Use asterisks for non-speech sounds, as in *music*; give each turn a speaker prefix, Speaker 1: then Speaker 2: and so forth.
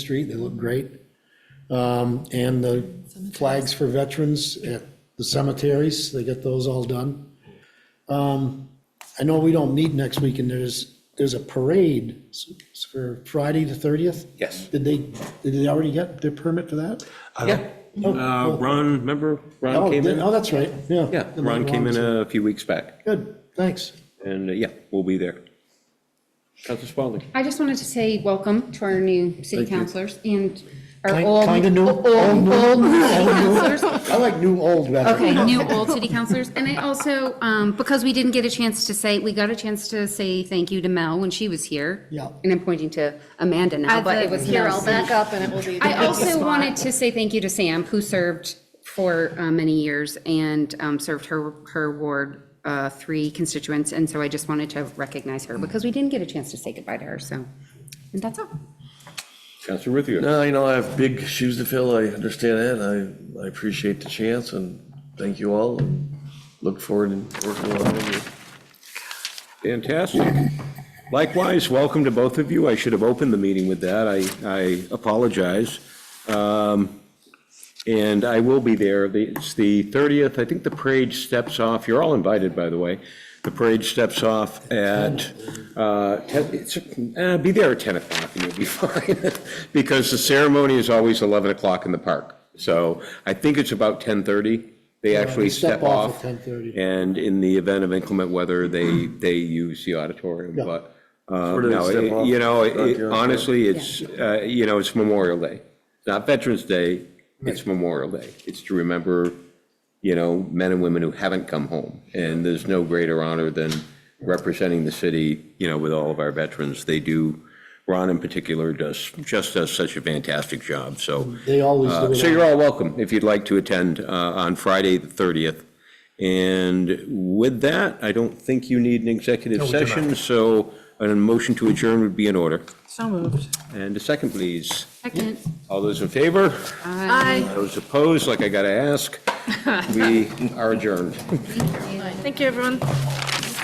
Speaker 1: street, they look great. Um, And the flags for veterans at the cemeteries, they get those all done. Um, I know we don't meet next week, and there's, there's a parade s- for Friday the 30th?
Speaker 2: Yes.
Speaker 1: Did they, did they already get their permit for that?
Speaker 2: Yeah. Uh, Ron, remember,
Speaker 1: Oh,
Speaker 2: Ron came
Speaker 1: did-
Speaker 2: in?
Speaker 1: Oh, that's right, yeah.
Speaker 2: Yeah,
Speaker 1: And
Speaker 2: Ron came in
Speaker 1: was-
Speaker 2: a few weeks back,
Speaker 1: Good, thanks.
Speaker 2: and uh, yeah, we'll be there. Council Spaulding.
Speaker 3: I just wanted to say welcome to our new city councilors and our
Speaker 1: Kind-
Speaker 3: old.
Speaker 1: kinda new,
Speaker 3: old-
Speaker 1: old new,
Speaker 3: old
Speaker 1: old
Speaker 3: city
Speaker 1: new.
Speaker 3: councilors.
Speaker 1: I like new old veterans.
Speaker 3: Okay, new old city councilors. And I also, um, because we didn't get a chance to say, we got a chance to say thank you to Mel when she was here.
Speaker 1: Yeah.
Speaker 3: And I'm pointing to Amanda now, but it was
Speaker 4: here,
Speaker 3: Mel.
Speaker 4: I'll back up and it will be. the
Speaker 3: I also
Speaker 4: spot.
Speaker 3: wanted to say thank you to Sam, who served for uh, many years and um, served her, her Ward uh, 3 constituents. And so I just wanted to recognize her because we didn't get a chance to say goodbye to her, so. And that's all.
Speaker 2: Council Ruthier.
Speaker 5: No, you know, I have big shoes to fill. I understand that. I, I appreciate the chance and thank you all and look forward to working along with you.
Speaker 2: Fantastic. Likewise, welcome to both of you. I should have opened the meeting with that. I, I apologize. Um, And I will be there. The- It's the 30th. I think the parade steps off. You're all invited, by the way. The parade steps off at, uh, 10 it's, uh, be there at 10 o'clock and you'll be *laughs* fine. Because the ceremony is always 11 o'clock in the park. So I think it's about 10:30. They actually
Speaker 1: step
Speaker 2: step
Speaker 1: off
Speaker 2: off.
Speaker 1: at 10:30.
Speaker 2: And in the event of inclement weather, they, they use the auditorium, but, uh,
Speaker 5: Where do they
Speaker 2: no,
Speaker 5: step
Speaker 2: it-
Speaker 5: off?
Speaker 2: you know,
Speaker 5: Not
Speaker 2: it-
Speaker 5: during-
Speaker 2: honestly, it's, uh, you know, it's Memorial Day. It's Not Veterans Day, it's Memorial Day. It's to remember, you know, men and women who haven't come home. And there's no greater honor than representing the city, you know, with all of our veterans. They do, Ron in particular does, just does such a fantastic job, so.
Speaker 1: They always do
Speaker 2: Uh,
Speaker 1: it.
Speaker 2: So you're all welcome if you'd like to attend uh, on Friday, the 30th. And with that, I don't think you need an executive session, so a motion to adjourn would be in order.
Speaker 4: So moved.
Speaker 2: And a second, please.
Speaker 3: Second.
Speaker 2: All those in favor?
Speaker 4: Aye.
Speaker 2: Those opposed, like I got to ask? We are adjourned.
Speaker 4: Thank you, everyone.